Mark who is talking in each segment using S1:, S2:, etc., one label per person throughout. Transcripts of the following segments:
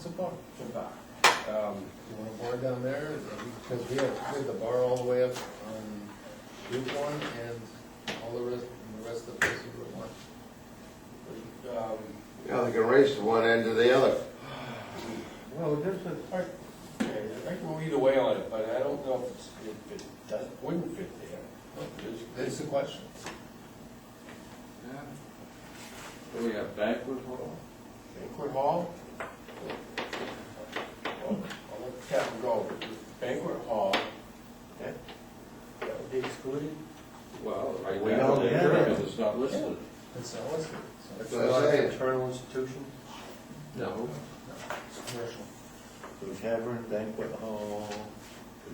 S1: Support.
S2: Chippewa. Um,
S1: You want a bar down there? Because we have, we have the bar all the way up on Route One and all the rest, and the rest of the place is Route One.
S2: we, um,
S3: Yeah, they can race from one end to the other.
S4: Well, there's a,
S2: all right, okay, I can read away on it, but I don't know if it's- if it does, wouldn't fit there. It's-
S1: That's the question.
S5: What do we have, banquet hall?
S2: Banquet hall? Well, I'll let Captain go, but this banquet hall, that, that would be excluded?
S5: Well, right
S4: We
S5: now,
S4: don't
S5: they
S4: have it.
S5: because it's not listed.
S1: It's all listed.
S3: That's what I'm saying.
S2: internal institution?
S5: No.
S1: It's commercial.
S4: the tavern banquet hall,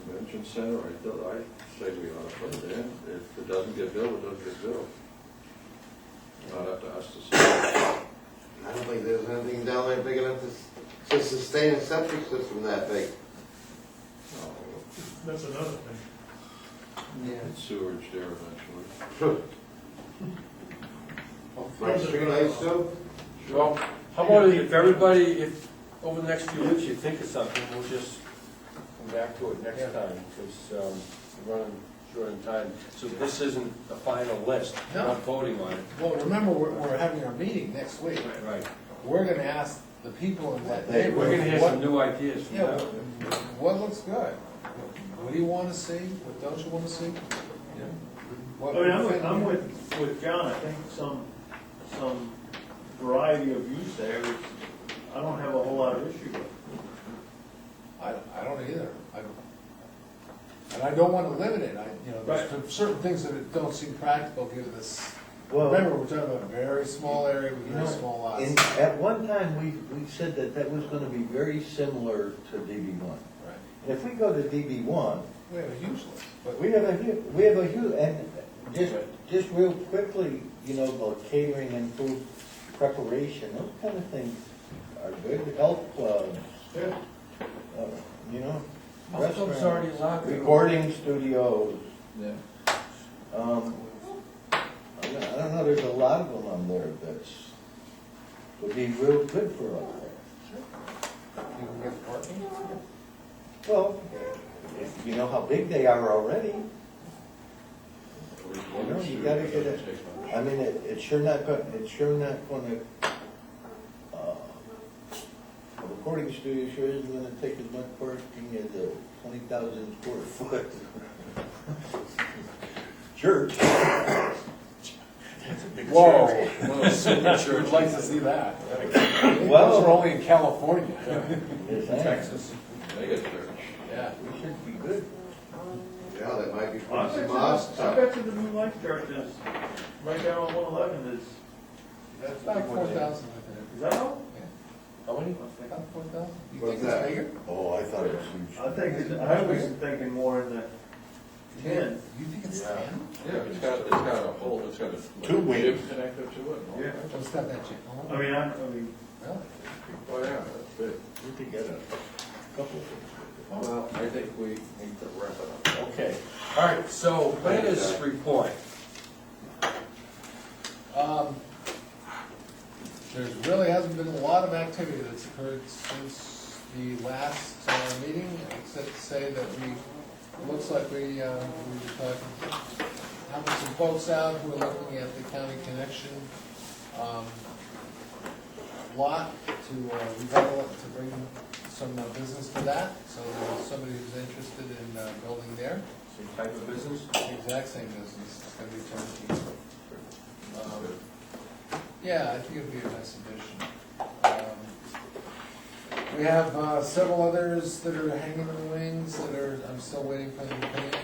S5: Convention center, I thought, I say we ought to put it in. If it doesn't get built, it doesn't get built. Not up to us to say.
S3: I don't think there's anything down there big enough to, s- to sustain a septic system that big.
S5: No,
S6: That's another thing.
S5: it's Sewage there eventually.
S3: Like streetlights too?
S2: Well, how about if everybody, if, over the next few weeks, you think of something, we'll just come back to it next
S1: Yeah.
S2: time, because we're running short on time. So this isn't a final list, we're not voting on it.
S1: Well, remember, we're, we're having our meeting next week.
S2: Right.
S1: We're gonna ask the people in that neighborhood.
S2: We're gonna hear
S1: what-
S2: some new ideas from
S1: Yeah,
S2: them.
S1: what- what looks good? What do you wanna see? What don't you wanna see?
S6: I mean, I'm with, I'm with, with John, I think some, some variety of use there is, I don't have a whole lot of issue with.
S1: I, I don't either. I don't, and I don't wanna limit it. I, you know, there's certain things that don't seem practical given this.
S4: Well-
S1: Remember, we're talking about a very small area with
S4: You
S1: very
S4: know,
S1: small
S4: And
S1: lots.
S4: at one time, we, we said that that was gonna be very similar to DB one.
S1: Right.
S4: If we go to DB one,
S1: We have a huge list, but
S4: we have a hu, we have a huge, and just, just real quickly, you know, about catering and food preparation, those kind of things are good, health clubs,
S6: Yeah.
S4: uh, you know,
S2: Health club's already
S4: restaurants,
S2: allowed.
S4: recording studios.
S5: Yeah.
S4: Um, I don't- I don't know, there's a lot of them on there that's, would be real good for us.
S1: you can get parking.
S4: Well, if you know how big they are already, No, you gotta get it. I mean, it, it's sure not gonna, it's sure not gonna, uh, a recording studio sure isn't gonna take as much parking as a twenty thousand square foot. Church.
S2: Whoa.
S1: We'd like to see that.
S4: Well-
S1: Those are only in California.
S4: Yes, I-
S2: Texas.
S5: They get church.
S1: Yeah.
S4: We should be good.
S3: Yeah, that might be
S6: I bet
S3: some Uh,
S6: you,
S3: mosques.
S6: I
S3: up.
S6: bet you the New Life Church is, right down on one eleven is,
S1: That's about four thousand, I think.
S6: is that all?
S2: How many?
S1: About four thousand? You
S3: What's
S1: think
S3: that?
S1: it's bigger?
S4: Oh, I thought it was
S6: I
S4: huge.
S6: think, it's- I was thinking more in the ten.
S1: You think it's ten?
S5: Yeah, it's got, it's got a whole, it's got a.
S4: Two wings.
S5: gym Connected to it. and all
S6: Yeah.
S5: that.
S1: Well, it's not that cheap.
S6: I mean, I, I mean,
S1: Really?
S5: Oh, yeah, that's big.
S4: We could get a couple of things.
S5: Well, I think we need to wrap it up.
S2: Okay, all right, so planners report.
S1: Um, There's really hasn't been a lot of activity that's occurred since the last uh, meeting, except to say that we, it looks like we, uh, we were talking, having some folks out who are looking at the county connection um, lot to uh, redevelop, to bring some uh, business to that. So there's somebody who's interested in uh, building there.
S2: Same type of business?
S1: Exact same business, it's gonna be turnkey. Um, Yeah, I think it'd be a nice addition. Um, We have uh, several others that are hanging in the wings that are, I'm still waiting for them to come in.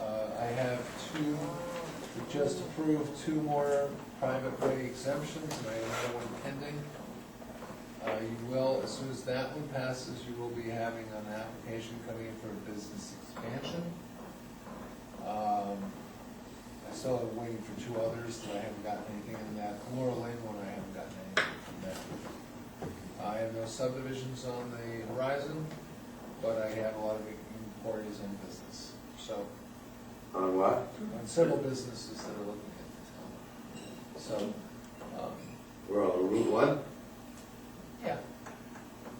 S1: Uh, I have two, we just approved two more private way exemptions, and I have another one pending. Uh, You will, as soon as that one passes, you will be having an application coming in for a business expansion. Um, I still am waiting for two others that I haven't gotten anything in that, Laurel Lane one, I haven't gotten anything from that. I have no subdivisions on the horizon, but I have a lot of inquiries on business, so,
S3: On what?
S1: on several businesses that are looking at the town. So, um,
S3: We're on Route One?
S1: yeah,